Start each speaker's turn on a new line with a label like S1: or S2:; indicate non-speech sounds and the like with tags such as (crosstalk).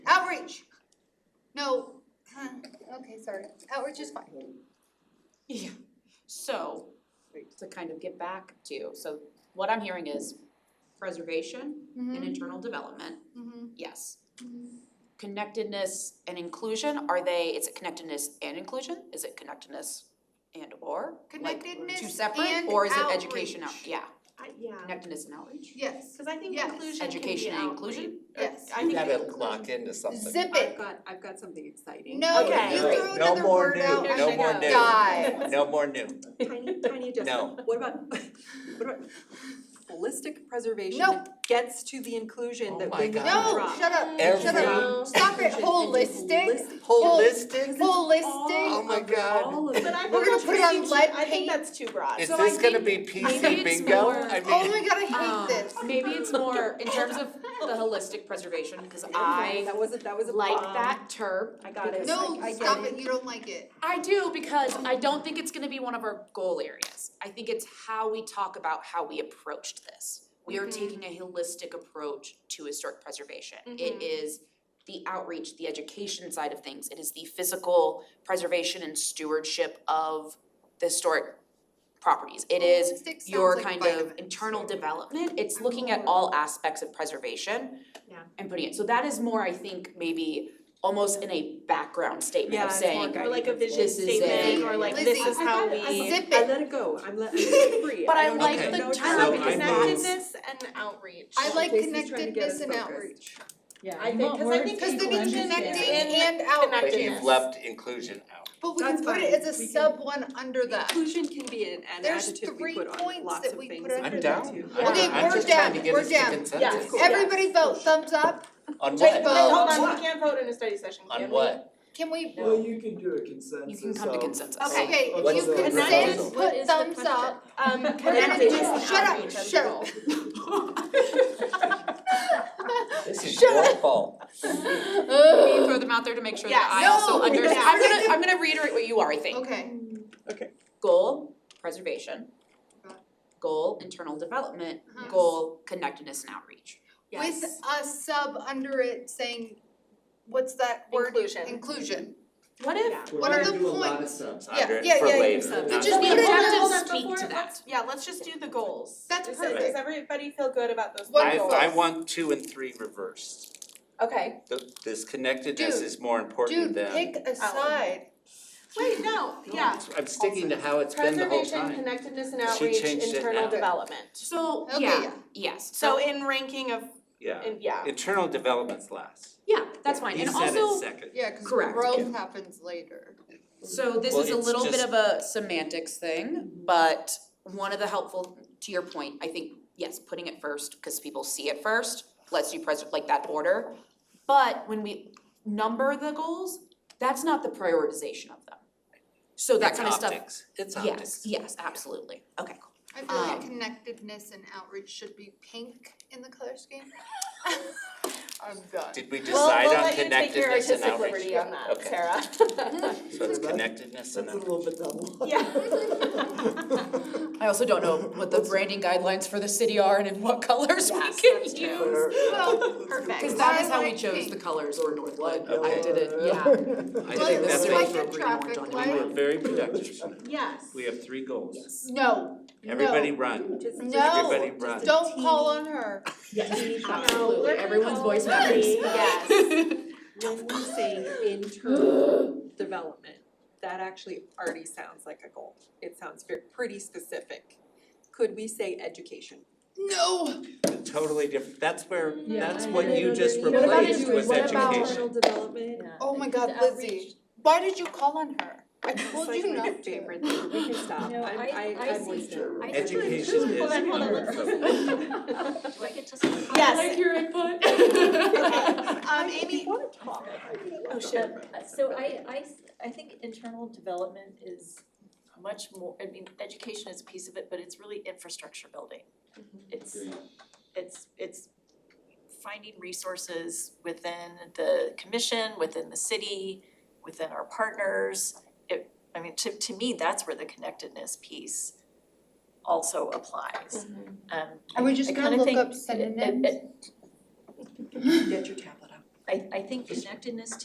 S1: No, huh, okay, sorry, outreach is fine.
S2: Yeah, so, to kind of get back to, so what I'm hearing is preservation
S1: Mm-hmm.
S2: and internal development,
S1: Mhm,
S2: yes.
S1: mhm.
S2: Connectedness and inclusion, are they, is it connectedness and inclusion? Is it connectedness and or? Like, Two
S1: Connectedness
S2: separate,
S1: and
S2: or is it education out,
S1: outreach.
S2: yeah,
S3: I, yeah,
S2: connectedness and outreach?
S1: Yes,
S3: cause I think
S1: Yes.
S3: inclusion can be
S2: Education and inclusion?
S3: outreach. Or-
S1: yes.
S3: I
S4: You
S3: think
S4: got it
S3: inclusion-
S4: locked into something.
S1: Zip
S5: I've
S1: it,
S5: got, I've got something exciting.
S1: no,
S3: Okay.
S1: you
S3: Great.
S1: throw
S4: No
S1: another
S4: more
S1: word
S4: new,
S1: out,
S3: no
S1: I'm
S3: more
S1: gonna
S3: new. (laughs)
S1: die.
S4: No more new.
S5: Tiny, tiny adjustment. What about, (laughs) what about holistic preservation that gets to the inclusion
S4: Oh
S5: that
S4: my
S5: we can
S4: God.
S1: No,
S5: drop?
S1: shut up,
S4: Every-
S1: shut up,
S5: No.
S1: stop it, holistic,
S5: Holistic.
S4: Holistic? Oh
S1: holistic,
S4: my God.
S5: All of it.
S3: But I
S1: We're
S3: think
S1: gonna put it
S3: that's
S1: on
S3: too-
S1: lead
S3: I think
S1: paint.
S3: that's too broad.
S4: Is
S5: So I
S4: this gonna be
S5: think- I think
S4: PC
S5: it's
S4: bingo?
S5: more-
S4: I
S1: oh
S4: mean,
S1: my god, I
S2: (laughs)
S5: Um,
S1: hate this.
S2: Maybe it's more in terms of the holistic preservation, because
S5: I,
S2: I
S5: that was a, that was a.
S2: like
S5: bomb.
S2: that term.
S3: I got it.
S1: No,
S5: I- I get
S1: stop
S5: it.
S1: it, you don't like it,
S2: I do because I don't think it's gonna be one of our goal areas. I think it's how we talk about how we approached this. We are
S3: Mhm.
S2: taking a holistic approach to historic preservation. It
S3: Mhm.
S2: is the outreach, the education side of things. It is the physical preservation and stewardship of the historic properties. It is
S1: Holistic Oh, sounds
S2: your
S1: like
S2: kind of
S1: vitamins.
S2: internal development, it's looking at all aspects of preservation.
S3: Yeah.
S2: And putting it, so that is more, I think, maybe almost in a background statement
S5: Yeah,
S2: of
S5: it's
S2: saying,
S5: more
S3: Or like a vision
S2: This is a-
S3: statement, or like this
S1: Lizzie,
S3: is how we.
S5: I got it.
S1: Zip
S5: I
S1: it.
S5: let it go, I'm let, I'm let it free.
S2: But I
S5: don't
S4: like
S5: even
S4: the
S5: know what to
S4: term
S5: say.
S4: So I know-
S3: connectedness and outreach.
S1: I like
S5: Jason's trying to get us
S1: connectedness and
S5: focused.
S1: outreach,
S6: Yeah,
S3: I think, cause I think.
S1: cause then it's
S3: inclusion
S1: connecting
S3: is-
S1: and outreach.
S4: (laughs) but you've
S3: Connectedness.
S4: left inclusion out.
S1: But we can
S5: That's
S1: put
S5: fine.
S1: it as a
S5: We can-
S1: sub one under that.
S5: Inclusion can be an an
S1: There's
S5: adjective
S1: three
S5: we put
S1: points
S5: on lots
S1: that
S5: of
S1: we
S5: things.
S1: put under
S4: I'm
S1: that.
S4: down. I'm-
S1: Okay,
S4: I'm
S1: we're
S4: just trying
S1: down,
S4: to get
S1: we're
S4: us to
S1: down.
S4: consensus.
S3: Cool.
S1: Everybody vote, thumbs up,
S4: On
S1: Just
S4: what?
S1: vote.
S3: Wait, hold
S5: Oh,
S3: on, we can't vote in a study session,
S4: On
S3: can we?
S4: what?
S1: can we,
S2: No.
S7: Well, you can do a
S2: you
S7: consensus
S2: can come to
S7: of-
S2: consensus.
S1: (laughs)
S3: Okay.
S1: okay,
S7: What's
S1: you
S7: the
S4: proposal?
S1: consent,
S3: What
S1: put
S3: is the
S1: thumbs up.
S3: (laughs) Um,
S1: We're gonna
S3: connected
S1: do,
S5: Connected.
S1: shut up,
S5: Outreach,
S1: shut up.
S4: This is your fault.
S2: Can you throw them out there to make sure that I
S1: Yeah,
S2: also
S1: no,
S2: under,
S1: yeah.
S2: I'm gonna, I'm gonna reiterate what you are, I think.
S1: Okay,
S2: Goal, preservation.
S1: Got
S2: Goal, internal development,
S1: Uh-huh.
S2: goal, connectedness and outreach.
S1: with a sub under it saying, what's that word?
S3: Inclusion.
S1: Inclusion,
S2: What if,
S7: We're
S1: What are
S7: gonna
S1: the
S7: do a lot of
S1: points?
S7: subs.
S1: Yeah,
S4: Under it
S1: yeah,
S4: for
S1: yeah, yeah.
S4: later,
S5: So-
S4: not
S1: But
S2: does
S1: just
S2: the
S1: put it in
S3: hold
S2: objectives
S3: on,
S2: speak to
S3: before-
S2: that?
S3: Yeah, let's just do the goals.
S1: That's
S3: Does-
S1: perfect.
S3: Does everybody feel good about those
S1: One
S3: three
S4: I,
S1: goal.
S3: goals?
S4: I want two and three reversed.
S3: Okay.
S4: Th- This connectedness
S1: Dude,
S4: is more important
S1: dude,
S4: than.
S1: pick a side.
S3: Wait, no, yeah.
S4: I'm sticking to how it's been the whole
S3: Preservation,
S4: time.
S3: connectedness and
S4: She
S3: outreach,
S4: changed it
S3: internal
S4: now.
S3: development.
S2: so,
S1: Okay,
S2: yeah,
S1: yeah.
S2: yes, so,
S3: So in ranking of,
S4: Yeah,
S3: in, yeah.
S4: internal development's last.
S2: yeah, that's fine,
S4: You
S2: and
S4: said it
S2: also,
S4: second.
S1: Yeah, cause
S2: Correct.
S1: growth happens later.
S2: so this
S4: Well,
S2: is a
S4: it's
S2: little bit
S4: just-
S2: of a semantics thing, but one of the helpful, to your point, I think, yes, putting it first, cause people see it first, lets you pres- like that order. But when we number the goals, that's not the prioritization of them. So that
S4: It's
S2: kind of stuff,
S4: optics. It's
S2: yes,
S4: optics.
S2: yes, absolutely, okay, cool.
S1: I feel like
S2: Um,
S1: connectedness and outreach should be pink in the color scheme. (laughs) I'm done.
S4: Did we
S3: We'll,
S4: decide
S3: we'll
S4: on
S3: let you take your
S4: connectedness and
S3: artistic
S4: outreach?
S3: liberty on that,
S4: Okay.
S3: Sarah.
S2: (laughs)
S4: So it's connectedness and
S7: That's a
S4: outreach.
S7: little bit double. (laughs)
S2: I also don't know what the branding guidelines for the city are and in what (laughs) colors we
S3: Yes,
S2: can use.
S3: that's true.
S1: Well, (laughs) perfect.
S2: Cause that is how
S1: I
S2: we
S1: like
S2: chose
S1: pink.
S2: the colors or Northwood, I
S4: Okay.
S2: did it, yeah.
S4: I
S7: (laughs)
S1: Well,
S4: think
S1: it's
S4: that's
S1: like
S4: what,
S1: a traffic
S4: we
S1: light.
S4: were very productive.
S3: Yes.
S4: We have three goals.
S1: No,
S4: Everybody run.
S5: Just- just-
S1: No,
S4: Everybody
S5: just
S4: run.
S5: a
S1: don't
S5: teeny-
S1: call on her.
S5: teeny thought.
S3: No, we're gonna
S2: everyone's
S3: go
S2: voice
S3: with-
S2: matters.
S3: Yes.
S5: when we say internal development, that actually already sounds like a goal. It sounds very, pretty specific. Could we say education?
S1: No,
S4: Totally different. That's where,
S6: Yeah,
S4: that's
S6: I
S4: what
S6: know.
S4: you just
S6: What about
S4: replaced
S6: education?
S4: was
S6: What about-
S4: education.
S5: development?
S1: oh my god, Lizzie, why did you call on her? I
S5: It's
S1: told
S5: like
S1: you
S5: my
S1: not (laughs) to.
S5: favorite thing. We can stop.
S6: No,
S5: I'm,
S6: I-
S5: I,
S6: I
S5: I'm
S6: see
S5: with (laughs) you.
S6: I-
S4: Education is.
S3: Hold on, hold on, let's listen.
S6: Do I get to? say-
S3: Yes.
S6: I like your input.
S1: (laughs)
S3: Um,
S5: (laughs)
S3: Amy,
S6: Oh, shit. So I, I, s- I think internal development is much more, I mean, education is a piece of it, but it's really infrastructure building.
S5: Mm-hmm.
S6: It's, it's, it's finding resources within the commission, within the city, within our partners. It, I mean, to, to me, that's where the connectedness piece also applies.
S5: Mm-hmm.
S6: Um,
S1: Are we just
S6: I
S1: gonna
S6: kinda
S1: look
S6: think
S1: up
S6: it- it-
S1: synonyms?
S6: it-
S5: Get your tablet out.
S6: I, I think connectedness